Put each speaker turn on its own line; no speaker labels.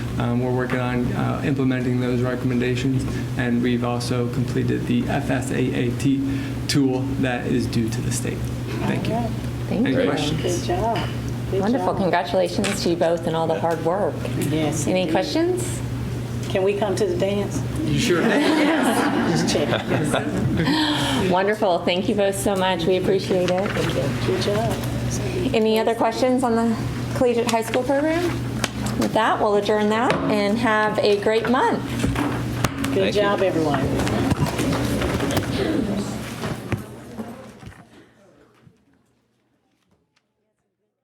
Um, We're working on uh, implementing those recommendations, and we've also completed the FSAAT tool that is due to the state. Thank you.
Thank
Any
you.
questions?
Good job. Good
Wonderful.
job.
Congratulations to you both and all the hard work.
Yes.
Any
indeed.
questions?
Can we come to the dance?
You sure?
Just check.
Wonderful. Thank you both so much. We appreciate it.
Good job.
Any other questions on the collegiate high school program? With that, we'll adjourn that and have a great month.
Good
you.
job, everyone.